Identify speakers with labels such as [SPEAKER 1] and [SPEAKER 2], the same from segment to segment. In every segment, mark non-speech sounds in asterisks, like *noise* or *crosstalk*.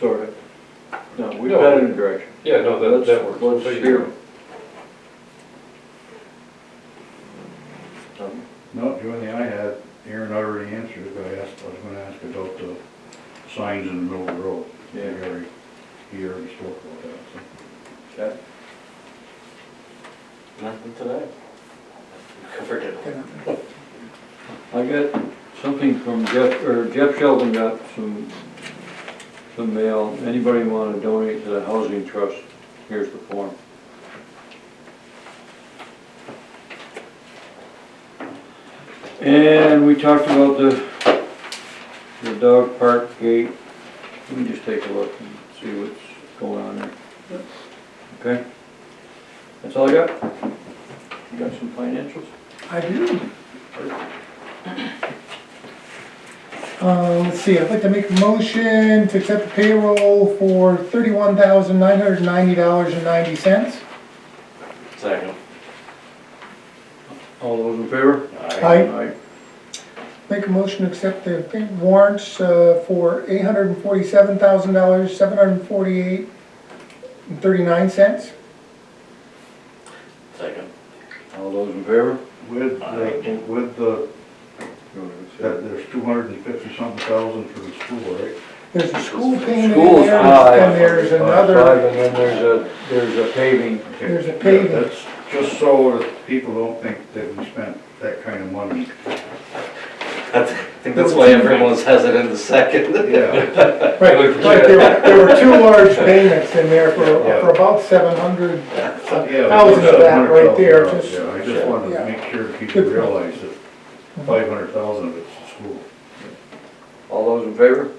[SPEAKER 1] Sorry. No, we've
[SPEAKER 2] No.
[SPEAKER 1] got it in direction.
[SPEAKER 2] Yeah, no, that, that
[SPEAKER 1] Let's-
[SPEAKER 2] works.
[SPEAKER 1] Let's
[SPEAKER 2] So you-
[SPEAKER 1] steer. 'em. Um,
[SPEAKER 3] No, the only thing I had, Aaron already answered, but I asked, I was gonna ask about the signs in the middle of the road. He
[SPEAKER 1] Yeah.
[SPEAKER 3] already, he already spoke about that, so.
[SPEAKER 1] Okay.
[SPEAKER 4] Nothing today. *laughs* Covered it. all.
[SPEAKER 1] I got something from Jeff, or Jeff Sheldon got some, some mail. Anybody want to donate to the housing trust? Here's the form. And we talked about the, the dog park gate. Let me just take a look and see what's going on there. Okay? That's all I got? You got some financials?
[SPEAKER 5] I do. Uh, let's see, I'd like to make a motion to accept the payroll for thirty-one thousand nine hundred ninety dollars and ninety cents.
[SPEAKER 4] Second.
[SPEAKER 1] All those in favor?
[SPEAKER 5] I make a motion to accept the pay- warrants, uh, for eight hundred and forty-seven thousand dollars, seven hundred and forty-eight and thirty-nine cents.
[SPEAKER 4] Second.
[SPEAKER 1] All those in favor?
[SPEAKER 3] With, the- with the, that there's two hundred and fifty something thousand for the school, right?
[SPEAKER 5] There's a school payment in
[SPEAKER 1] Schools,
[SPEAKER 5] there,
[SPEAKER 1] aye.
[SPEAKER 5] and there's
[SPEAKER 1] Five,
[SPEAKER 5] another,
[SPEAKER 1] and then there's a, there's a paving.
[SPEAKER 3] Okay.
[SPEAKER 5] There's a
[SPEAKER 3] Yeah,
[SPEAKER 5] paving.
[SPEAKER 3] That's just so that people don't think that we spent that kind of money.
[SPEAKER 4] That's- I think that's why everyone was hesitant to second.
[SPEAKER 3] Yeah,
[SPEAKER 5] right, right, there were, there were two large payments in there for, for about seven hundred
[SPEAKER 3] yeah.
[SPEAKER 5] Thousands of that right there,
[SPEAKER 3] $700,000,
[SPEAKER 5] just-
[SPEAKER 3] Yeah, I just wanted
[SPEAKER 5] yeah.
[SPEAKER 3] to make sure people realize that five hundred thousand of it's the school.
[SPEAKER 1] All those in favor?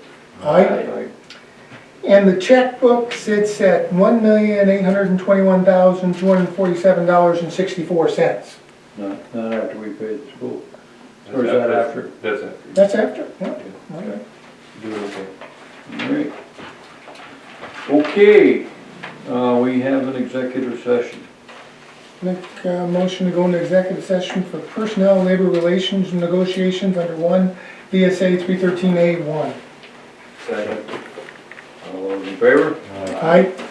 [SPEAKER 5] Aye. And the checkbook sits at one million, eight hundred and twenty-one thousand, two hundred and forty-seven dollars and sixty-four cents.
[SPEAKER 1] No, not after we pay the school.
[SPEAKER 2] That's
[SPEAKER 1] Or is that after?
[SPEAKER 2] That's after.
[SPEAKER 5] That's after, yeah.
[SPEAKER 1] Okay.
[SPEAKER 2] Doing okay.
[SPEAKER 1] Alright. Okay, uh, we have an executive session.
[SPEAKER 5] Make a motion to go into executive session for personnel, labor relations, and negotiations under one VSA three thirteen A one.
[SPEAKER 1] Second. All those in favor?
[SPEAKER 3] Uh,
[SPEAKER 5] Aye.